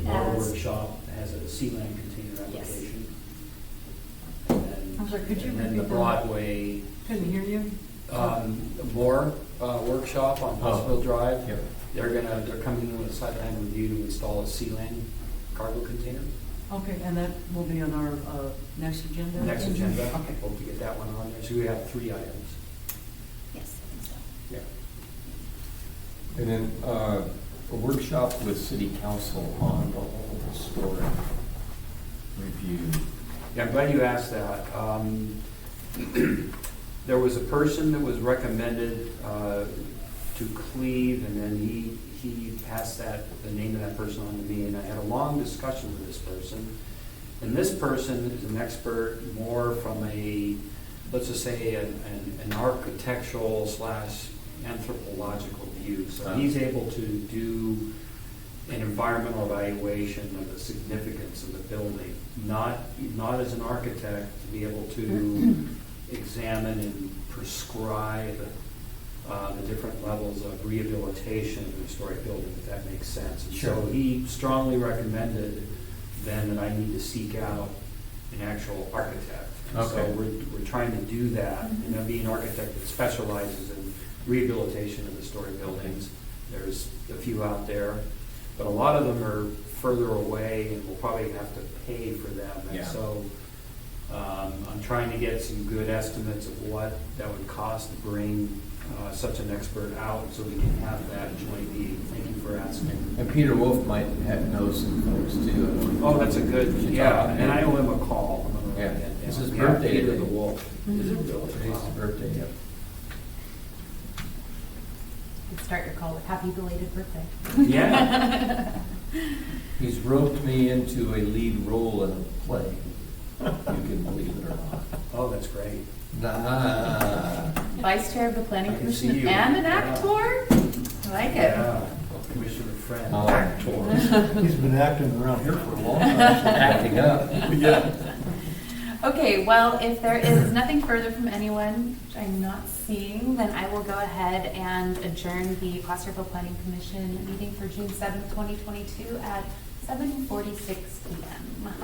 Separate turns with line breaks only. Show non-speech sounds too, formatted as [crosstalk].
workshop has a sea land container
Yes.
application. And then-
I'm sorry, could you
And then
repeat
the
that?
Broadway,
Couldn't hear you.
um, Moore, uh, workshop on Huntsville Drive.
Yep.
They're gonna, they're coming in with a site plan review to install a sea land cargo container.
Okay, and that will be on our uh, next agenda?
Next agenda,
Okay.
hope to get that one on there, so we have three items.
Yes, I think so.
Yeah.
And then uh, a workshop with city council on the whole historic review.
Yeah, I'm glad you asked that. Um, There was a person that was recommended uh, to Cleve, and then he, he passed that, the name of that person on to me, and I had a long discussion with this person. And this person is an expert more from a, let's just say, an- an an architectural slash anthropological view. So he's able to do an environmental evaluation of the significance of the building, not, not as an architect to be able to examine and prescribe uh, the different levels of rehabilitation of a historic building, if that makes sense. And So
Sure.
he strongly recommended then that I need to seek out an actual architect. And
Okay.
So we're, we're trying to do that, and that'd be an architect that specializes in rehabilitation of historic buildings. There's a few out there, but a lot of them are further away, and we'll probably have to pay for them. And
Yeah.
so, um, I'm trying to get some good estimates of what that would cost to bring, uh, such an expert out, so we can have that joint meeting. Thank you for asking.
And Peter Wolf might have knows some folks too.
Oh, that's a good,
Should
yeah,
talk to him.
and I owe him a call. I'm gonna
Yeah,
write that
it's
down.
his
Yeah,
birthday
Peter
today.
the Wolf.
Mhm.
Is it really?
Today's
Wow.
his birthday, yep.
Start your call with happy belated birthday.
Yeah.
He's roped me into a lead role in a play, you can believe it or not.
Oh, that's great.
Nah.
[laughs] Vice Chair of the
I
Planning
can see
Commission
you.
and an
Yeah.
actor? I like it.
Yeah, Commissioner Friend.
Oh.
He's been acting around here for a
Oh,
long time.
Acting up.
Yeah.
[laughs] Okay, well, if there is nothing further from anyone, which I'm not seeing, then I will go ahead and adjourn the Placerville Planning Commission meeting for June seventh, twenty twenty-two at seven forty-six PM.